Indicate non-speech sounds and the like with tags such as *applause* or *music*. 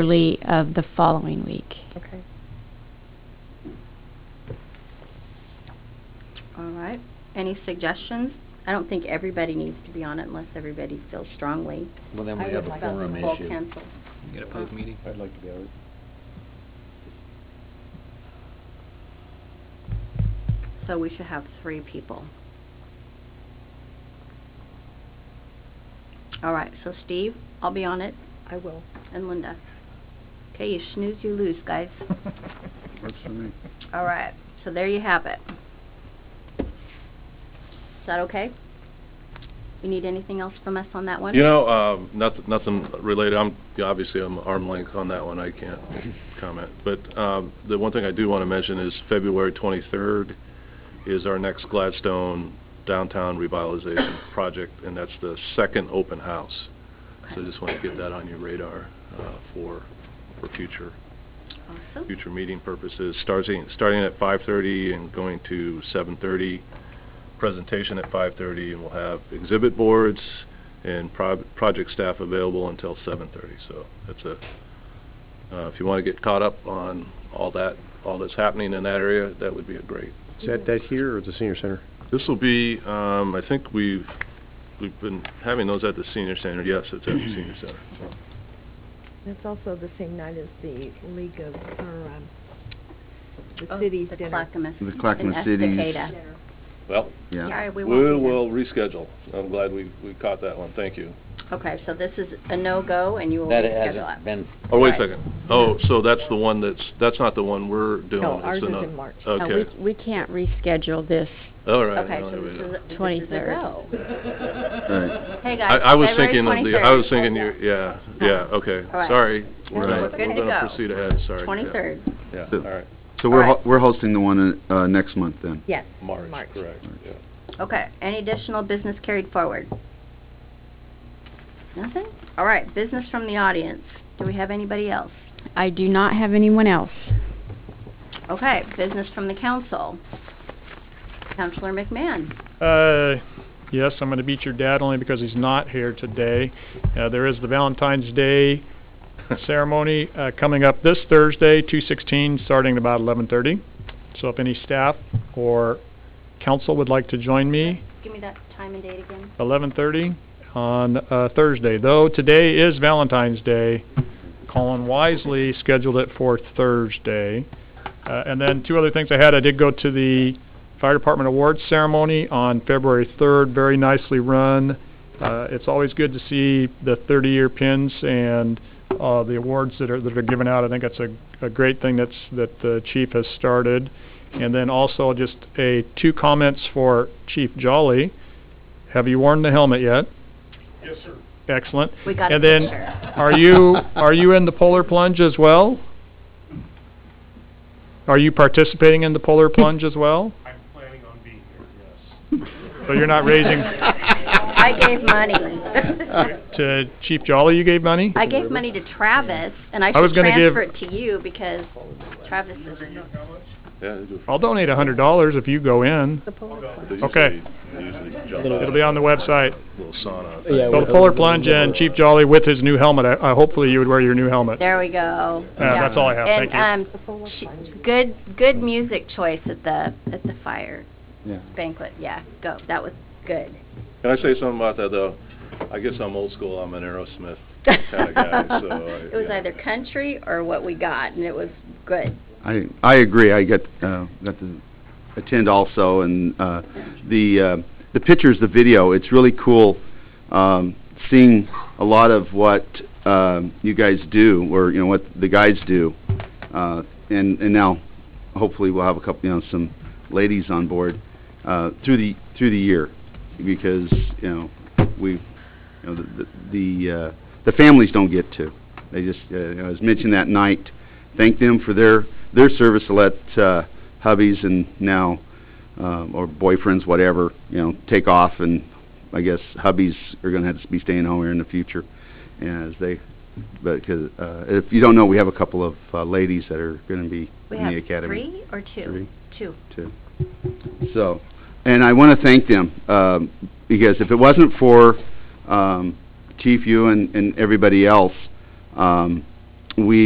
early of the following week. Okay. All right. Any suggestions? I don't think everybody needs to be on it unless everybody feels strongly Well, then I we would have a like that forum about full issue. council. Uh, You get a public meeting? I'd like to be on it. So we should have three people. All right, so Steve, I'll be on it, I will. and Linda. Okay, you snooze, you lose, *laughs* guys. Works for me. All right, so there you have it. Is that okay? You need anything else from us on that one? You know, um, noth- nothing related, I'm, obviously, I'm arm length on that one, I can't comment. But um, the one thing I do want to mention is February 23rd is our next Gladstone Downtown Revitalization *coughs* Project, and that's the second open house. So I just want to get that on your radar uh, for, for future, Awesome. future meeting purposes. Starting, starting at 5:30 and going to 7:30, presentation at 5:30, and we'll have exhibit boards and prob- project staff available until 7:30. So that's a, uh, if you want to get caught up on all that, all that's happening in that area, that would be a great. Is that, that here or at the senior center? This will be, um, I think we've, we've been having those at the senior center. Yes, it's at the senior center. That's also the same night as the League of, or, um, Oh, the city's the dinner. Clackamas- The Clackamas and Cities. Estacada. Well, Sorry, we we won't be there. will reschedule. I'm glad we, we caught that one. Thank you. Okay, so this is a no-go, and you will That reschedule hasn't it. been, Oh, wait a Right. second. Oh, so that's the one that's, that's not the one we're doing. No, It's ours is ano- in March. Uh, we- Okay, We can't reschedule this. all right. Okay, no, so there we this go. is, a- this is a 23rd. no. right. *laughs* Hey, guys, I, I was February thinking of the, 23rd. I was thinking, you- yeah, yeah, okay, All right. sorry. We're gonna- good to We're go. gonna proceed ahead, sorry. yeah. 23rd. Yeah, So- all right, So we're, ho- Alright. we're hosting the one, uh, uh, next month then? Yes. March, correct, yeah. Okay, any additional business carried forward? Nothing? All right, business from the audience. Do we have anybody else? I do not have anyone else. Okay, business from the council. Counselor McMahon. Uh, yes, I'm going to beat your dad only because he's not here today. Uh, there is the Valentine's Day ceremony uh, coming up this Thursday, 2:16, starting at about 11:30. So if any staff or council would like to join me, Give me that time and date again. 11:30 on uh, Thursday. Though today is Valentine's Day, Colin wisely scheduled it for Thursday. Uh, and then two other things I had. I did go to the fire department awards ceremony on February 3rd. Very nicely run. Uh, it's always good to see the 30-year pins and uh, the awards that are that are given out. I think that's a, a great thing that's that the chief has started. And then also just a two comments for Chief Jolly. Have you worn the helmet yet? Yes, sir. Excellent. We got a And then, picture. are *laughs* you, are you in the polar plunge as well? Are you participating in the polar plunge as well? I'm planning on being here, yes. *laughs* So you're not *laughs* *laughs* raising, I gave *laughs* money. to Chief Jolly you gave money? I gave money to Travis, and I I was should gonna give- transfer it to you because Travis is... Yeah, they do. I'll donate a hundred dollars if you go in. The polar plunge. They usually- Okay. they usually jump out. It'll be on the website. Little sauna. Yeah, So the polar plunge and Chief Jolly with his new helmet, I, I hopefully you would wear your new helmet. There we go. Yeah, Uh, that's all I have. Thank you. And, The um, polar sh- plunge. good, good music choice at the, at the fire yeah. banquet, yeah, go, that was good. Can I say something about that, though? I guess I'm old school, I'm an Aerosmith kind of guy, *laughs* so. I- It was yeah. either country or what we got, and it was good. I, I agree, I got, uh, got to attend also, and, uh, the, uh, the pictures, the video, it's really cool, um, seeing a lot of what, um, you guys do, or, you know, what the guys do, uh, and, and now, hopefully we'll have a couple, you know, some ladies on board, uh, through the, through the year, because, you know, we, you know, the, the, the, uh, the families don't get to. They just, uh, you know, as mentioned that night, thank them for their, their service to let, uh, hubbies and now, um, or boyfriends, whatever, you know, take off and I guess hubbies are gonna have to be staying home here in the future as they, but, 'cause, uh, if you don't know, we have a couple of, uh, ladies that are gonna be We in have the academy three or two? Three. Two. too. So, and I want to thank them, um, because if it wasn't for um, Chief, you and and everybody else, um, we